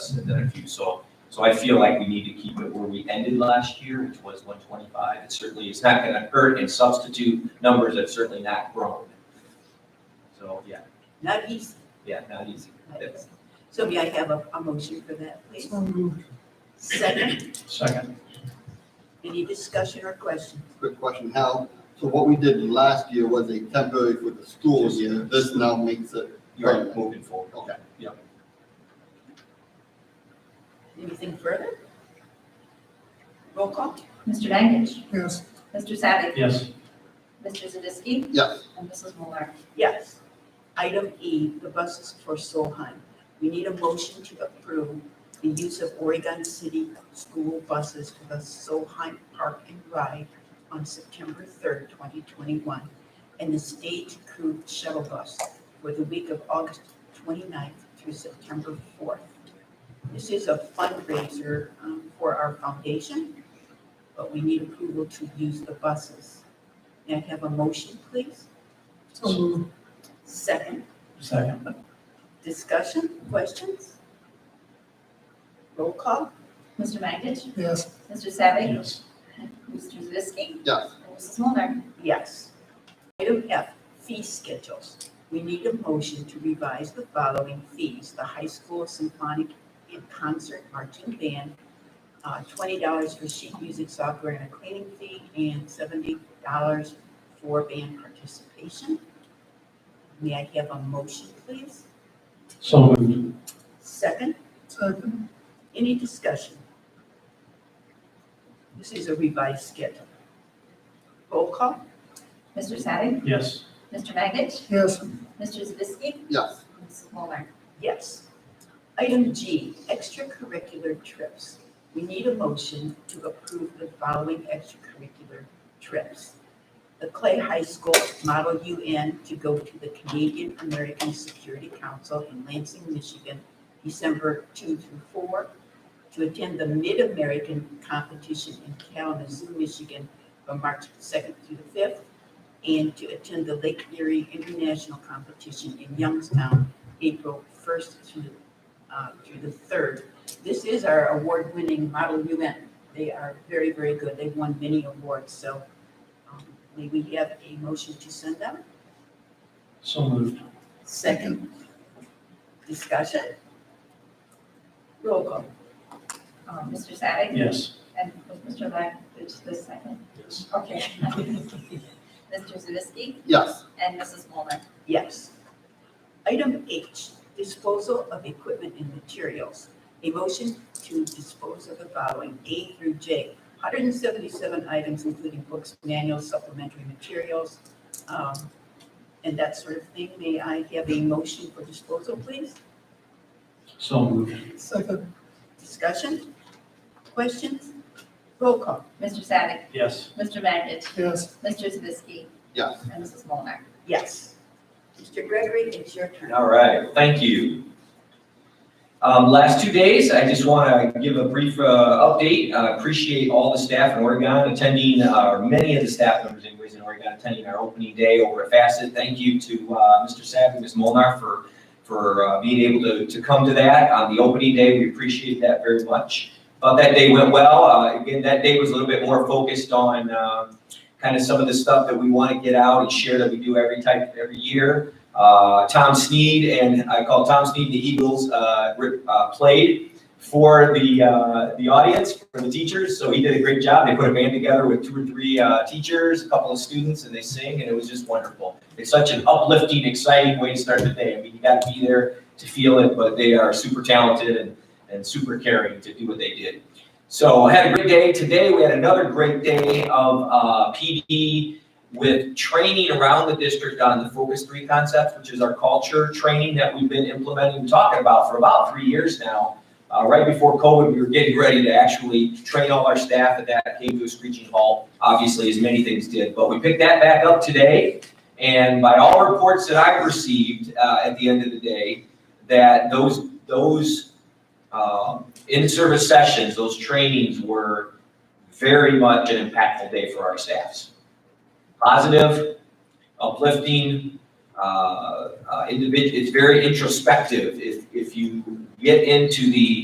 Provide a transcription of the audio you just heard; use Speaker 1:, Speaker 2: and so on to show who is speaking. Speaker 1: and then a few. So, so I feel like we need to keep it where we ended last year, which was one twenty-five. It certainly is not gonna hurt and substitute numbers that's certainly not grown. So, yeah,
Speaker 2: Not easy,
Speaker 1: yeah, not easy.
Speaker 2: not easy. So may I have a, a motion for that, please? Second,
Speaker 1: Second.
Speaker 2: any discussion or question?
Speaker 3: Quick question, Hal. So what we did last year was a temporary for the school year. This now makes it,
Speaker 1: You're moving forward.
Speaker 3: okay.
Speaker 2: Anything further? Roll call?
Speaker 4: Mr. Magich.
Speaker 5: Yes.
Speaker 4: Mr. Savick.
Speaker 5: Yes.
Speaker 4: Mr. Zadisky.
Speaker 3: Yes,
Speaker 4: And Mrs. Muller.
Speaker 2: Yes. Item E, the buses for Solheim. We need a motion to approve the use of Oregon City school buses for the Solheim Park and Ride on September third, twenty twenty-one, and the stage crew shuttle bus for the week of August 29th through September fourth. This is a fundraiser um, for our foundation, but we need approval to use the buses. May I have a motion, please? Second.
Speaker 5: Second.
Speaker 2: Discussion, questions? Roll call?
Speaker 4: Mr. Magich.
Speaker 5: Yes.
Speaker 4: Mr. Savick.
Speaker 5: Yes.
Speaker 4: Mr. Zadisky.
Speaker 3: yes.
Speaker 4: And Mrs. Muller.
Speaker 2: Yes. Item F, fee schedules. We need a motion to revise the following fees. The high school symphonic and concert marching band, uh, twenty dollars for sheet music software and a cleaning fee, and seventy dollars for band participation. May I have a motion, please?
Speaker 5: So moved.
Speaker 2: Second?
Speaker 5: Second.
Speaker 2: Any discussion? This is a revised schedule. Roll call?
Speaker 4: Mr. Savick.
Speaker 5: Yes.
Speaker 4: Mr. Magich.
Speaker 5: Yes.
Speaker 4: Mr. Zadisky.
Speaker 3: Yes,
Speaker 4: And Mrs. Muller.
Speaker 2: Yes. Item G, extracurricular trips. We need a motion to approve the following extracurricular trips. The Clay High School Model UN to go to the Canadian American Security Council in Lansing, Michigan, December 2 through 4, to attend the Mid-American Competition in Kalamazoo, Michigan, from March 2nd through the 5th, and to attend the Lake Erie International Competition in Youngstown, April 1st through, uh, through the 3rd. This is our award-winning Model UN. They are very, very good. They've won many awards, so um, may we have a motion to send them?
Speaker 5: So moved.
Speaker 2: Second. Discussion? Roll call.
Speaker 4: Um, Mr. Savick.
Speaker 5: Yes.
Speaker 4: And was Mr. Magich the second?
Speaker 5: Yes.
Speaker 4: Okay. Mr. Zadisky.
Speaker 3: yes,
Speaker 4: And Mrs. Muller.
Speaker 2: Yes. Item H, disposal of equipment and materials. A motion to dispose of the following, A through J. 177 items, including books, manuals, supplementary materials, um, and that sort of thing. May I have a motion for disposal, please?
Speaker 5: So moved.
Speaker 2: Second. Discussion? Questions? Roll call.
Speaker 4: Mr. Savick.
Speaker 5: Yes.
Speaker 4: Mr. Magich.
Speaker 5: Yes.
Speaker 4: Mr. Zadisky.
Speaker 3: yes.
Speaker 4: And Mrs. Muller.
Speaker 2: Yes. Mr. Gregory, it's your turn.
Speaker 1: All right, thank you. Um, last two days, I just want to give a brief, uh, update. Uh, appreciate all the staff in Oregon attending, uh, many of the staff members anyways in Oregon attending our opening day over at Facet. Thank you to, uh, Mr. Sapp and Ms. Molnar for, for, uh, being able to, to come to that on the opening day. We appreciate that very much. Thought that day went well. Uh, again, that day was a little bit more focused on, um, kind of some of the stuff that we want to get out and share that we do every type, every year uh, Tom Sneed and I call Tom Sneed the Eagles uh, rip- uh, played for the uh, the audience for the teachers. So he did a great job. They put a band together with two or three uh, teachers, a couple of students, and they sing, and it was just wonderful. It's such an uplifting, exciting way to start the day. I mean, you got to be there to feel it, but they are super talented and and super caring to do what they did. So I had a great day today. We had another great day of uh, PD with training around the district on the Focus Three concepts, which is our culture training that we've been implementing, talking about for about three years now. Uh, right before COVID, we were getting ready to actually train all our staff, and that came to a screeching halt, obviously, as many things did. But we picked that back up today, and by all reports that I've received, uh, at the end of the day, that those, those, um, in-service sessions, those trainings were very much an impactful day for our staffs positive, uplifting, uh, uh, individ- it's very introspective. If, if you get into the